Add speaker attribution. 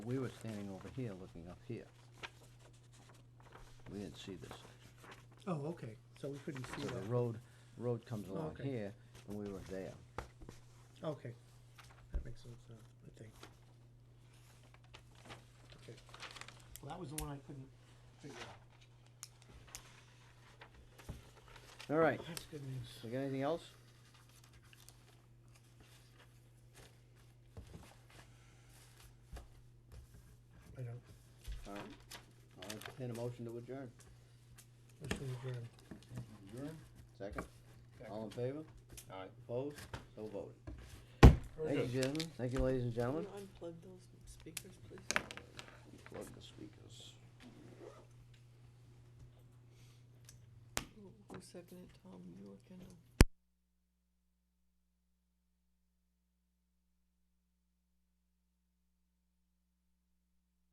Speaker 1: We were standing over here, looking up here. We didn't see this.
Speaker 2: Oh, okay, so we couldn't see
Speaker 1: So the
Speaker 2: that.
Speaker 1: road, road comes along
Speaker 2: Okay.
Speaker 1: here, and we were there.
Speaker 2: Okay, that makes sense now, I think. Okay, well, that was the one I couldn't figure out.
Speaker 1: All right,
Speaker 2: That's good news.
Speaker 1: so you got anything else?
Speaker 2: I don't,
Speaker 1: All right, I'll entertain a motion to adjourn.
Speaker 2: motion adjourned.
Speaker 1: Second? All in favor?
Speaker 3: Aye.
Speaker 1: Opposed? So voted.
Speaker 2: Very
Speaker 1: Thank you,
Speaker 3: good.
Speaker 1: gentlemen. Thank you, ladies and
Speaker 4: Can
Speaker 1: gentlemen.
Speaker 4: you unplug those speakers, please?
Speaker 1: Plug the speakers.
Speaker 4: Who- Who seconded Tom, you or Kendall?